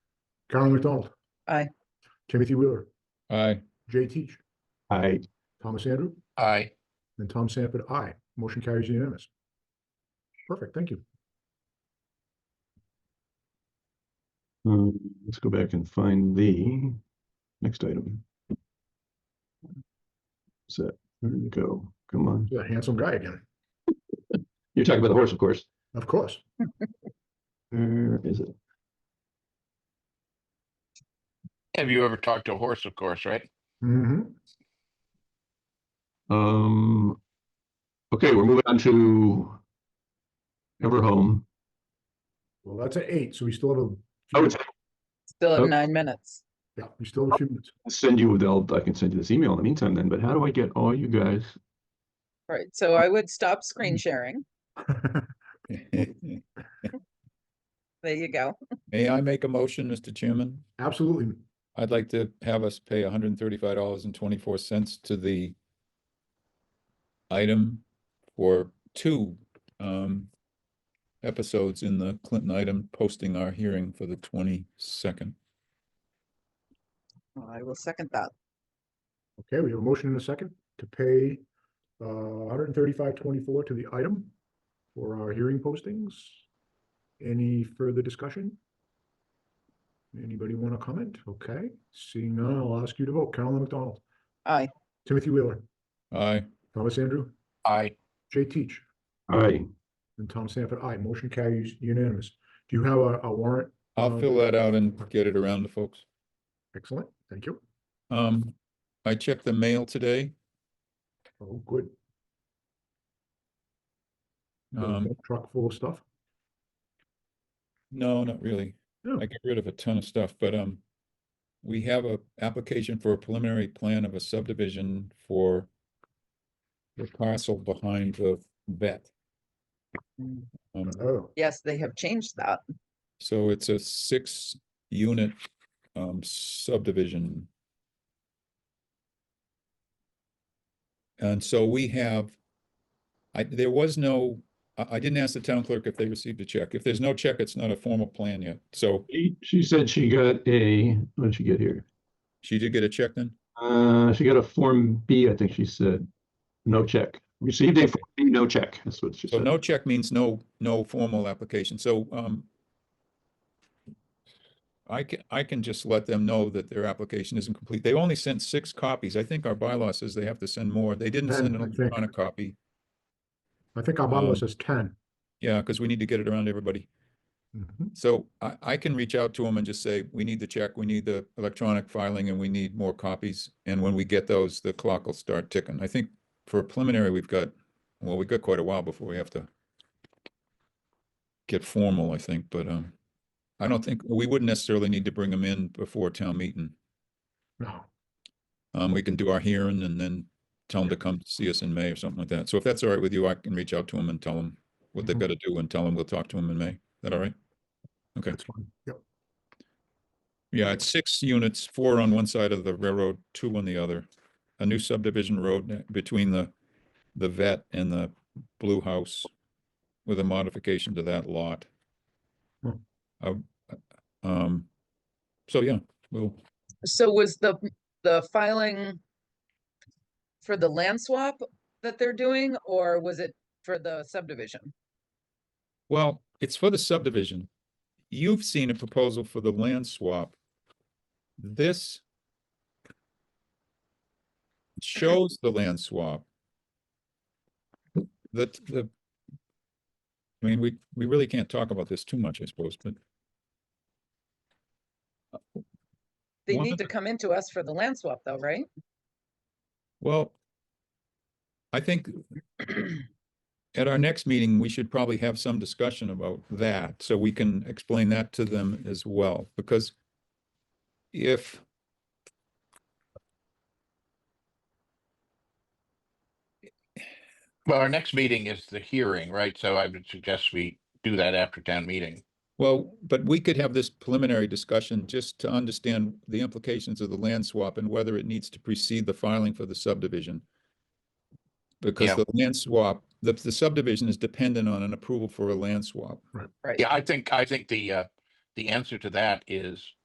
Carolyn McDonald. Aye. Timothy Wheeler, aye, Jay Teach, aye, Thomas Andrew, aye, and Tom Sanford, aye. Motion carries unanimous. Perfect, thank you. um, let's go back and find the next item. Set, there you go, come on, You're a handsome guy again, you're talking about the horse, of course, of course. where is it? have you ever talked to a horse, of course, right? hmm Um, okay, we're moving on to Everhome. Well, that's at eight, so we still have a. I would Still Oh. have nine minutes. Yeah, we still have a few minutes. send you, I'll, I can send you this email in the meantime then, but how do I get all you guys? Right, so I would stop screen sharing. There you go. May I make a motion, Mr. Chairman? Absolutely. I'd like to have us pay hundred and thirty-five dollars and twenty-four cents to the item for two um episodes in the Clinton item posting our hearing for the twenty-second. Well, Oh, I will second that. Okay, we have a motion in a second to pay uh, hundred and thirty-five twenty-four to the item for our hearing postings. Any further discussion? Anybody want to comment? Okay, seeing none, I'll ask you to vote. Carolyn McDonald, Aye, Timothy Wheeler, Aye, Thomas Andrew, Aye, Jay Teach, Aye, and Tom Sanford. Aye, motion carries unanimous. Do you have a a warrant? I'll fill that out and get it around to folks. Excellent, thank you. Um, I checked the mail today. Oh, good. Got a Um, Truck full of stuff. No, not really. No. I get rid of a ton of stuff, but, um, we have a application for a preliminary plan of a subdivision for the parcel behind the vet. Mm. Um, Oh, yes, they have changed that. so it's a six unit, um, subdivision. And so we have, I, there was no, I, I didn't ask the town clerk if they received a check. If there's no check, it's not a formal plan yet. So She- she said she got a, what did she get here? she did get a check then? Uh, she got a Form B, I think she said, no check, received a Form B, no check, that's what she So said. no check means no, no formal application, so, um. I can, I can just let them know that their application isn't complete, they only sent six copies, I think our bylaw says they have to send more, they didn't send Ten, an I think. electronic copy. I think our bylaw Um, says ten. Yeah, cause we need to get it around everybody, Mhm. so I, I can reach out to them and just say, we need the check, we need the electronic filing, and we need more copies. And when we get those, the clock will start ticking, I think for a preliminary, we've got, well, we've got quite a while before we have to. get formal, I think, but um, I don't think, we wouldn't necessarily need to bring them in before town meeting. No, Um, we can do our hearing and then tell them to come see us in May or something like that. So if that's all right with you, I can reach out to them and tell them what they've Mhm. got to do and tell them we'll talk to them in May. Is that all right? Okay, that's fine. Yep. yeah, it's six units, four on one side of the railroad, two on the other. A new subdivision road ne- between the, the vet and the blue house with a modification to that lot. Hmm. Uh, Um, so yeah, we'll, So was the, the filing for the land swap that they're doing, or was it for the subdivision? Well, it's for the subdivision. You've seen a proposal for the land swap. This shows the land swap. The, the, I mean, we, we really can't talk about this too much, I suppose, but They One need to of come into us for the land swap though, right? Well, I think at our next meeting, we should probably have some discussion about that, so we can explain that to them as well, because if well, our next meeting is the hearing, right? So I would suggest we do that after town meeting. Well, but we could have this preliminary discussion just to understand the implications of the land swap and whether it needs to precede the filing for the subdivision. Because Yeah. the land swap, the, the subdivision is dependent on an approval for a land swap. Right. Yeah, I think, I think the, uh, the answer to that is